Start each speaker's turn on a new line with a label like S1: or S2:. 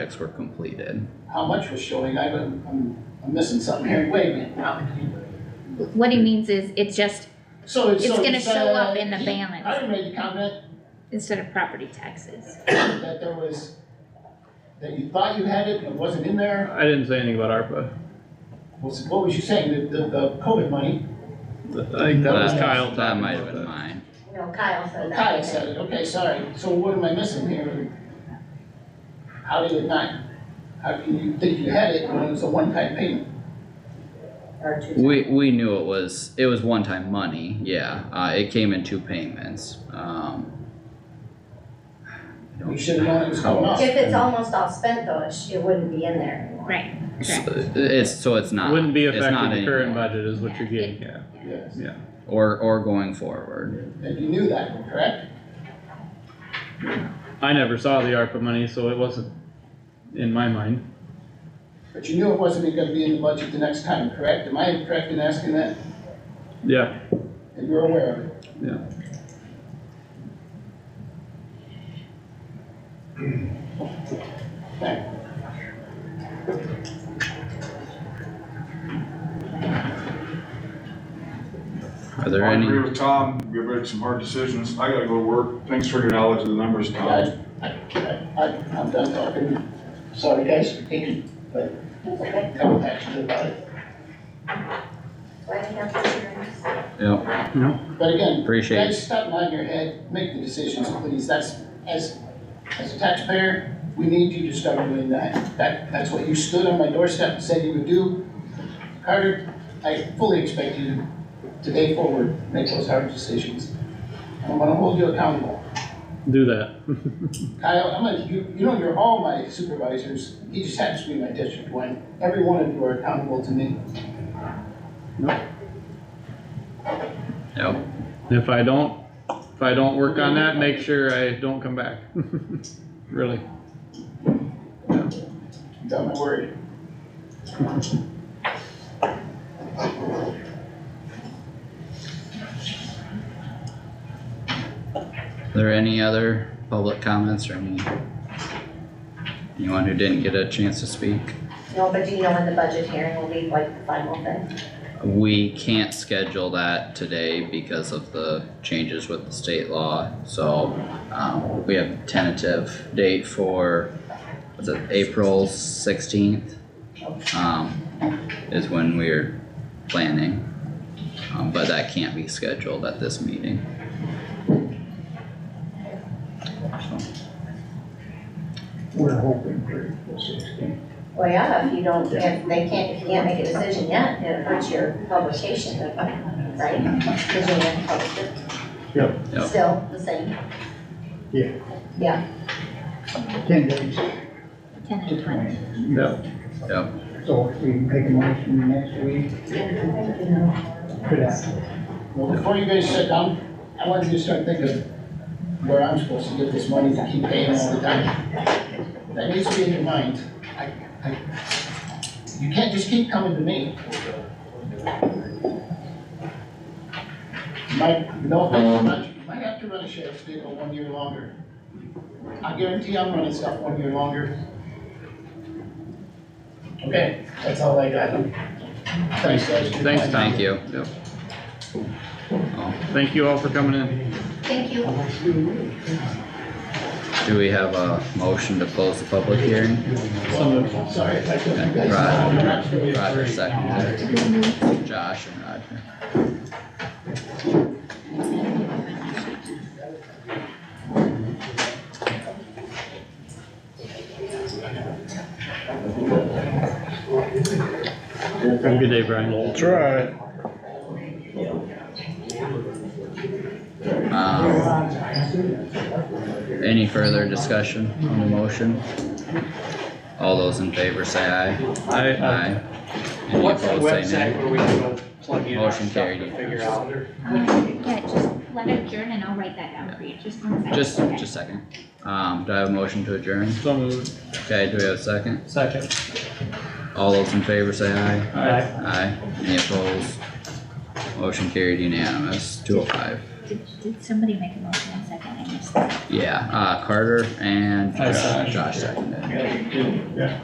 S1: checks were completed.
S2: How much was showing? I don't, I'm, I'm missing something here. Wait a minute, how many?
S3: What he means is it's just
S2: So it's.
S3: It's
S2: so
S3: gonna show up in the
S2: uh,
S3: balance.
S2: I made the comment
S3: instead of property taxes.
S2: that there was, that you thought you had it and it wasn't in there.
S4: I didn't say anything about ARPA.
S2: Well, so What was you saying? The, the, the COVID money?
S4: I think that was
S1: Uh, That-
S4: Kyle talking
S1: That might have
S4: about
S1: been
S4: that.
S1: mine.
S5: No, Kyle said that.
S2: Kyle said it. Okay, sorry. So what am I missing here? How did it not? How can you think you had it when it was a one-time payment?
S5: Or two.
S1: We, we knew it was, it was one-time money, yeah, uh, it came in two payments, um. I don't-
S2: We should have known it was coming up.
S5: If it's almost all spent though, it, sh- it wouldn't be in there anymore.
S3: Right,
S1: So, It's, so it's not.
S4: Wouldn't be
S1: it's not
S4: affecting the current
S1: anymore.
S4: budget is what you're
S3: Yeah.
S4: getting at.
S2: Yes.
S1: Or, or going forward,
S2: And you knew that, correct?
S4: I never saw the ARPA money, so it wasn't in my mind.
S2: But you knew it wasn't gonna be in the budget the next time, correct? Am I correct in asking that?
S4: Yeah,
S2: And you're aware of it?
S4: Yeah.
S2: Okay.
S1: are there
S6: I agree
S1: any,
S6: with Tom, we've made some hard decisions, I gotta go to work, thanks for your knowledge of the numbers, Tom.
S2: I, I, I, I'm done talking. Sorry guys for taking, but
S5: It's okay.
S2: no action about it.
S5: Why do you have to hear
S1: yeah,
S2: But again,
S1: appreciate,
S2: guys, stop nodding your head, make the decisions, please. That's, as, as a taxpayer, we need you to start doing that. That, that's what you stood on my doorstep and said you would do. Carter, I fully expect you to, today forward, make those hard decisions. I'm gonna hold you accountable.
S4: do that.
S2: Kyle, I'm gonna, you, you know, you're all my supervisors, he just happens to be my district one, every one of you are accountable to me.
S1: yeah,
S4: If I don't, if I don't work on that, make sure I don't come back. Really.
S2: You got my word.
S1: are there any other public comments or any? Anyone who didn't get a chance to speak?
S5: No, but do you know when the budget hearing will be, like the final thing?
S1: We can't schedule that today because of the changes with the state law, so, um, we have tentative date for, was it April sixteenth? Um, is when we're planning, um, but that can't be scheduled at this meeting.
S2: We're hoping for sixteen.
S5: Well, yeah, if you don't, if they can't, if you can't make a decision yet, it hurts your publication, right? Cause you haven't published it.
S7: Yep.
S1: Yep.
S5: Still the same.
S7: Yeah.
S5: Yeah,
S7: ten days,
S3: ten and
S7: just
S3: twenty.
S7: twenty.
S4: Yeah,
S7: So if we make a motion next week, for that.
S2: Well, before you guys shut down, I want you to start thinking where I'm supposed to get this money to keep paying all the time. That needs to be in your mind. I, I, you can't just keep coming to me. Might, no offense, but you might have to run a sheriff's vehicle one year longer. I guarantee I'm running stuff one year longer. Okay, that's all I got. Thanks, guys.
S4: Thanks, Tom.
S1: Thank you. Yep.
S4: thank you all for coming in.
S5: thank you.
S1: Do we have a motion to close the public hearing?
S2: Sorry if I took you guys.
S1: Roger, Roger seconded. Josh and Roger.
S4: Have a good day, Brian.
S7: Try.
S1: Um, Any further discussion on the motion? All those in favor say aye.
S4: I,
S1: Aye. Any
S8: What's the
S1: opposed say
S8: website
S1: nay.
S8: where we can plug in our
S1: Motion
S8: stuff to
S1: carried.
S8: figure out?
S3: Yeah, just let it adjourn and I'll write that down for you, just one second.
S1: Just,
S3: Okay.
S1: just a second. Um, do I have a motion to adjourn?
S4: so moved.
S1: Okay, do we have a second?
S8: Second.
S1: All those in favor say aye.
S8: Aye.
S1: Aye. Any opposed? Motion carried unanimous, two oh five.
S3: Did, did somebody make a motion in a second? I missed that.
S1: Yeah, uh, Carter and
S4: I seconded.
S1: Josh seconded.